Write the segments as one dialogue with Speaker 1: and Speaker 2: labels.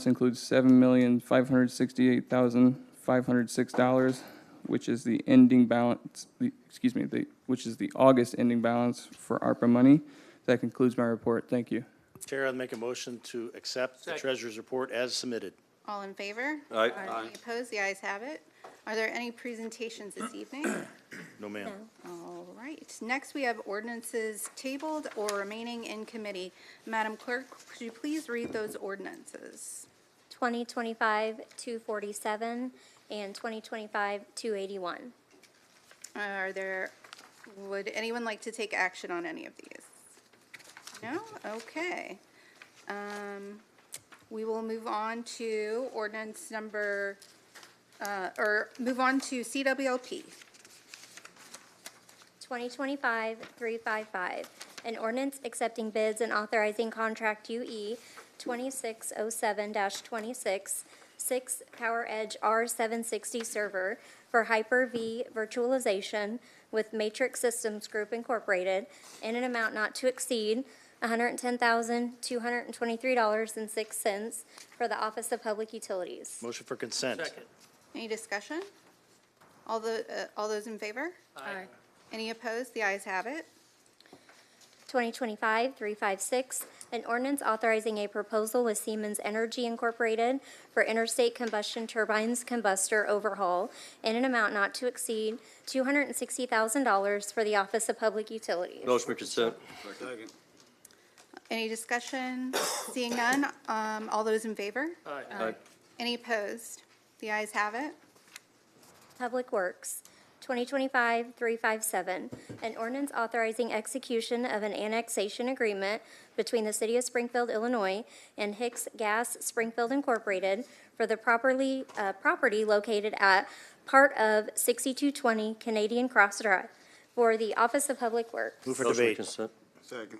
Speaker 1: This includes seven million, five hundred sixty-eight thousand, five hundred six dollars, which is the ending balance, the, excuse me, the, which is the August ending balance for ARPA money. That concludes my report. Thank you.
Speaker 2: Chair, I'd make a motion to accept the treasurer's report as submitted.
Speaker 3: All in favor?
Speaker 4: Aye.
Speaker 3: Any opposed? The ayes have it. Are there any presentations this evening?
Speaker 2: No, ma'am.
Speaker 3: All right. Next, we have ordinances tabled or remaining in committee. Madam Clerk, could you please read those ordinances?
Speaker 5: 2025-247 and 2025-281.
Speaker 3: Are there, would anyone like to take action on any of these? No? Okay. Um, We will move on to ordinance number, uh, or move on to CWLP.
Speaker 5: 2025-355, an ordinance accepting bids and authorizing contract E UE 2607-26, 6 Power Edge R760 server for Hyper-V virtualization with Matrix Systems Group Incorporated in an amount not to exceed $110,223.06 for the Office of Public Utilities.
Speaker 2: Motion for consent.
Speaker 3: Any discussion? All the, uh, all those in favor?
Speaker 6: Aye.
Speaker 3: Any opposed? The ayes have it.
Speaker 5: 2025-356, an ordinance authorizing a proposal with Siemens Energy Incorporated for interstate combustion turbines combustor overhaul in an amount not to exceed $260,000 for the Office of Public Utilities.
Speaker 4: Motion for consent.
Speaker 3: Any discussion? Seeing none, um, all those in favor?
Speaker 4: Aye.
Speaker 3: Any opposed? The ayes have it.
Speaker 5: Public Works, 2025-357, an ordinance authorizing execution of an annexation agreement between the City of Springfield, Illinois, and Hicks Gas Springfield Incorporated for the properly, uh, property located at part of 6220 Canadian Cross Drive for the Office of Public Works.
Speaker 2: Move for
Speaker 4: Motion for
Speaker 2: debate.
Speaker 4: consent.
Speaker 7: Second.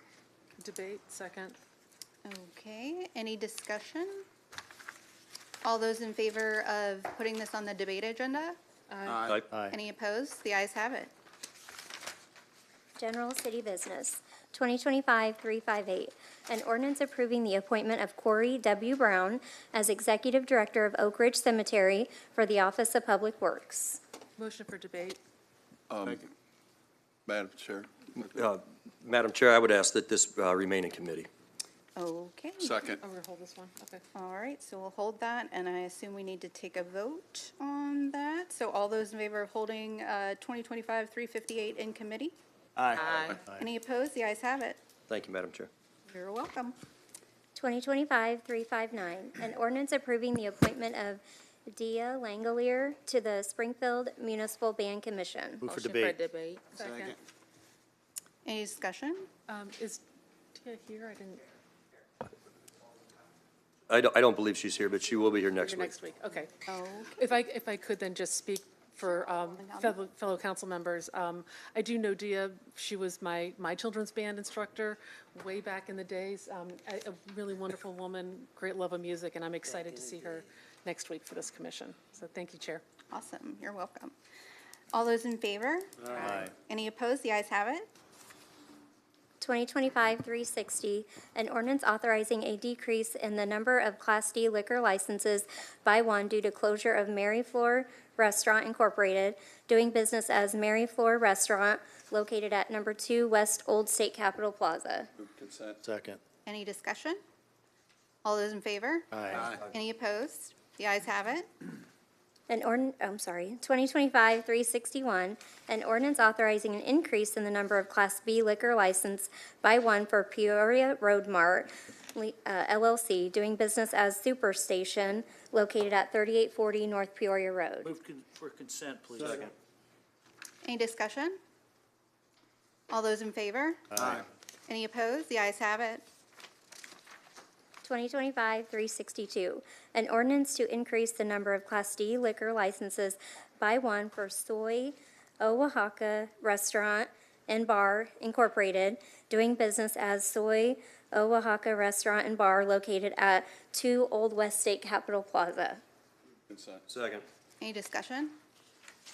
Speaker 6: Debate, second.
Speaker 3: Okay, any discussion? All those in favor of putting this on the debate agenda?
Speaker 4: Aye.
Speaker 2: Aye.
Speaker 3: Any opposed? The ayes have it.
Speaker 5: General City Business, 2025-358, an ordinance approving the appointment of Corey W. Brown as Executive Director of Oak Ridge Cemetery for the Office of Public Works.
Speaker 6: Motion for debate.
Speaker 7: Um, Madam Chair.
Speaker 4: Uh, Madam Chair, I would ask that this uh, remain in committee.
Speaker 3: Okay.
Speaker 7: Second.
Speaker 6: Oh, we're gonna hold this one, okay.
Speaker 3: All right, so we'll hold that, and I assume we need to take a vote on that. So all those in favor of holding uh, 2025-358 in committee?
Speaker 6: Aye.
Speaker 3: Any opposed? The ayes have it.
Speaker 4: Thank you, Madam Chair.
Speaker 3: You're welcome.
Speaker 5: 2025-359, an ordinance approving the appointment of Dia Langelier to the Springfield Municipal Band Commission.
Speaker 2: Move for
Speaker 6: Motion
Speaker 2: debate.
Speaker 6: debate. Second.
Speaker 3: Any discussion?
Speaker 6: Um, is Tia here? I didn't,
Speaker 4: I don't, I don't believe she's here, but she will be here next
Speaker 6: here
Speaker 4: week.
Speaker 6: next week, okay.
Speaker 3: Okay.
Speaker 6: If I, if I could then just speak for um, fellow, fellow council members. Um, I do know Dia, she was my, my children's band instructor way back in the days. Um, A a really wonderful woman, great love of music, and I'm excited to see her next week for this commission. So thank you, Chair.
Speaker 3: Awesome, you're welcome. All those in favor?
Speaker 2: Aye.
Speaker 3: Any opposed? The ayes have it.
Speaker 5: 2025-360, an ordinance authorizing a decrease in the number of Class D liquor licenses by one due to closure of Mary Floor Restaurant Incorporated, doing business as Mary Floor Restaurant, located at number 2 West Old State Capitol Plaza.
Speaker 7: Consent.
Speaker 2: Second.
Speaker 3: Any discussion? All those in favor?
Speaker 2: Aye.
Speaker 3: Any opposed? The ayes have it.
Speaker 5: An ordin, I'm sorry, 2025-361, an ordinance authorizing an increase in the number of Class B liquor license by one for Peoria Road Mart le- uh, LLC, doing business as Super Station, located at 3840 North Peoria Road.
Speaker 8: Move con- for consent, please.
Speaker 3: Any discussion? All those in favor?
Speaker 2: Aye.
Speaker 3: Any opposed? The ayes have it.
Speaker 5: 2025-362, an ordinance to increase the number of Class D liquor licenses by one for Soy Oaxaca Restaurant and Bar Incorporated, doing business as Soy Oaxaca Restaurant and Bar located at 2 Old West State Capitol Plaza.
Speaker 7: Consent.
Speaker 4: Second.
Speaker 3: Any discussion?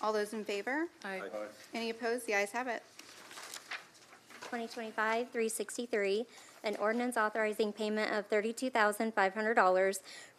Speaker 3: All those in favor?
Speaker 6: Aye.
Speaker 3: Any opposed? The ayes have it.
Speaker 5: 2025-363, an ordinance authorizing payment of $32,500